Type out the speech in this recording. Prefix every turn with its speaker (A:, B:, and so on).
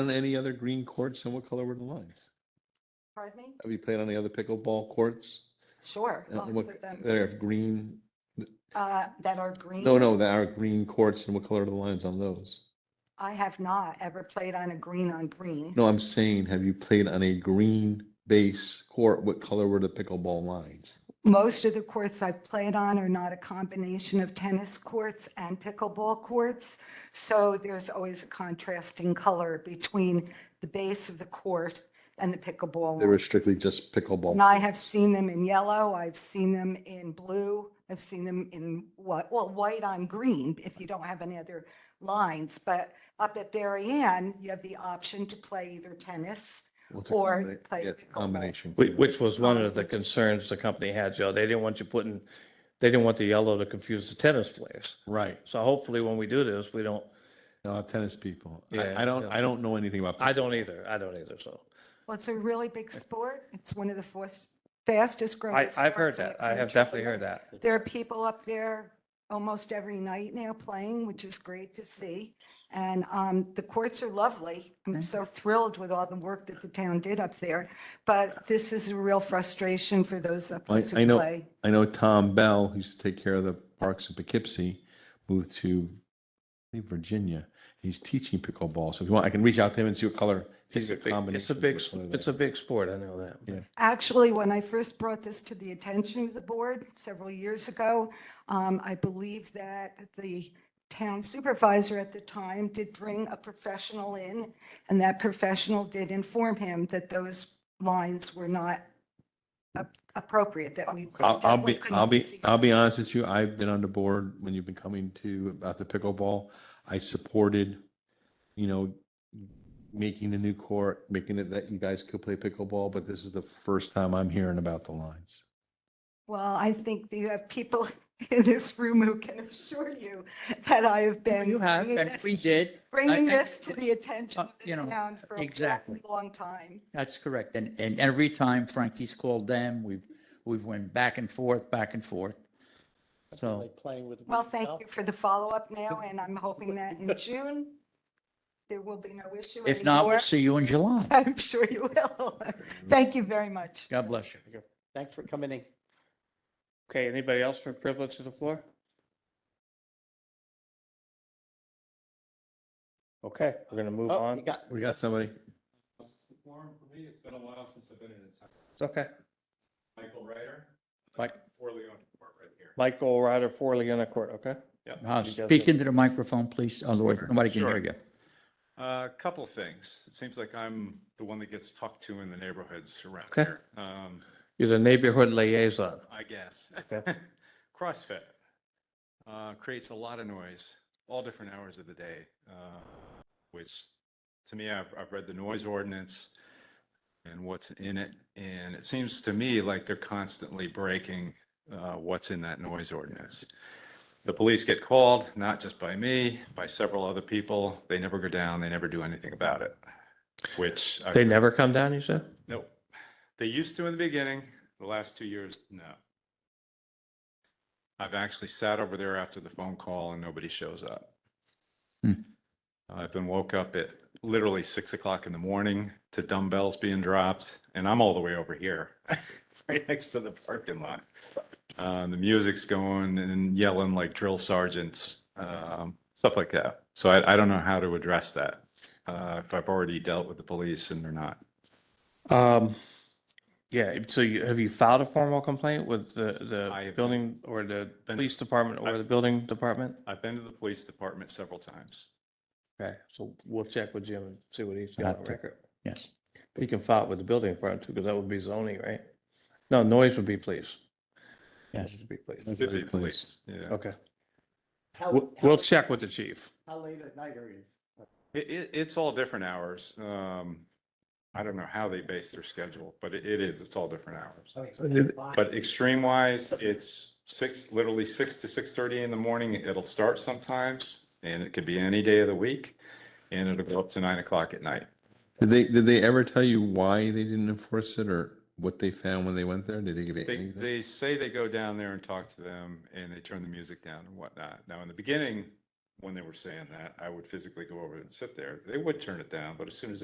A: on any other green courts and what color were the lines?
B: Pardon me?
A: Have you played on any other pickleball courts?
B: Sure.
A: And
B: lots
A: Uh, what-
B: of them,
A: That are green,
B: uh, That are green.
A: no, no, that are green courts and what color are the lines on those?
B: I have not ever played on a green on green.
A: No, I'm saying, have you played on a green base court? What color were the pickleball lines?
B: Most of the courts I've played on are not a combination of tennis courts and pickleball courts. So there's always a contrasting color between the base of the court and the pickleball.
A: They were
B: line.
A: strictly just pickleball.
B: And I have seen them in yellow, I've seen them in blue, I've seen them in what, well, white on green, if you don't have any other lines. But up at Berry Ann, you have the option to play either tennis.
A: What's a
B: or
A: combina-
B: play
A: yeah, um,
B: pickleball.
A: Combination.
C: Which, which was one of the concerns the company had, Joe. They didn't want you putting, they didn't want the yellow to confuse the tennis players.
A: Right,
C: So hopefully when we do this, we don't,
A: no, tennis people.
C: Yeah,
A: I, I don't,
C: yeah.
A: I don't know anything about.
C: I don't either. I don't either. So
B: Well, it's a really big sport. It's one of the fos- fastest growing.
C: I, I've heard
B: sports in the
C: that. I have
B: country.
C: definitely heard that.
B: There are people up there almost every night now playing, which is great to see. And um, the courts are lovely. I'm so thrilled with all the work that the town did up there. But this is a real frustration for those up
A: I,
B: there
A: I
B: who
A: know,
B: play.
A: I know Tom Bell, who used to take care of the parks in Poughkeepsie, moved to I think, Virginia. He's teaching pickleball. So if you want, I can reach out to him and see what color.
C: It's a big, it's a big, s- it's a big sport. I know that.
B: Actually, when I first brought this to the attention of the board several years ago, um, I believe that the town supervisor at the time did bring a professional in, and that professional did inform him that those lines were not ap- appropriate, that we.
A: I'll, I'll
B: definitely
A: be,
B: couldn't
A: I'll be,
B: see
A: I'll be honest with you. I've been on the board when you've been coming to about the pickleball. I supported, you know, making the new court, making it that you guys could play pickleball, but this is the first time I'm hearing about the lines.
B: Well, I think that you have people in this room who can assure you that I have been.
D: You have,
B: bringing
D: and
B: this-
D: we did.
B: Bringing
D: I- I-
B: this to the attention
D: Uh,
B: of the
D: you know,
B: town for a
D: exactly.
B: long, long time.
D: That's correct. And, and every time Frankie's called them, we've, we've went back and forth, back and forth. So
B: Well, thank you for the follow-up now, and I'm hoping that in June, there will be no issue
D: if not, we'll
B: anymore.
D: see you in July.
B: I'm sure you will. Thank you very much.
D: God bless you.
E: Thanks for coming in.
C: Okay, anybody else for privilege to the floor? Okay, we're gonna move
E: Oh,
C: on.
E: you got,
A: We got somebody.
F: What's the forum for me? It's been a while since I've been in a town.
C: It's okay.
F: Michael Ryder.
C: Mike.
F: Four Leon Court right here.
C: Michael Ryder, for Leona Court, okay?
D: Uh,
C: You guys
D: Speak
C: good?
D: into the microphone, please. Otherwise, nobody can hear
F: Sure.
D: you.
F: Uh, A couple things. It seems like I'm the one that gets talked to in the neighborhoods around
C: Okay.
F: here. Um,
C: You're the neighborhood liaison.
F: I guess.
C: Okay.
F: CrossFit uh, creates a lot of noise, all different hours of the day, uh, which to me, I've, I've read the noise ordinance and what's in it. And it seems to me like they're constantly breaking uh, what's in that noise ordinance. The police get called, not just by me, by several other people. They never go down, they never do anything about it, which. I-
C: They never come down, you said?
F: Nope. They used to in the beginning, the last two years, no. I've actually sat over there after the phone call and nobody shows up.
D: Hmm.
F: I've been woke up at literally six o'clock in the morning to dumbbells being dropped and I'm all the way over here, right next to the parking lot. Uh, the music's going and yelling like drill sergeants, um, stuff like that. So I, I don't know how to address that. Uh, if I've already dealt with the police and they're not.
C: Um, yeah, so you, have you filed a formal complaint with the,
F: I
C: the
F: have
C: building or the
F: been-
C: police department or
F: I-
C: the building department?
F: I've been to the police department several times.
C: Okay, so we'll check with Jim and see what he's got
D: Got
C: on
D: to.
C: record.
D: Yes.
C: He can file it with the building department too, because that would be zoning, right? No, noise would be police.
D: Yes.
C: Noise would be police.
A: That's
F: Should be
A: very pleased.
F: police, Yeah.
C: Okay,
E: how,
C: we'll,
E: how
C: we'll
E: late-
C: check with the chief.
E: how late at night are you?
F: It, it, it's all different hours. Um, I don't know how they base their schedule, but it, it is, it's all different hours. But extreme wise, it's six, literally six to six thirty in the morning. It'll start sometimes and it could be any day of the week. And it'll go up to nine o'clock at night.
A: Did they, did they ever tell you why they didn't enforce it or what they found when they went there? Did they give you
F: They,
A: anything?
F: they say they go down there and talk to them and they turn the music down and whatnot. Now, in the beginning, when they were saying that, I would physically go over and sit there. They would turn it down, but as soon as they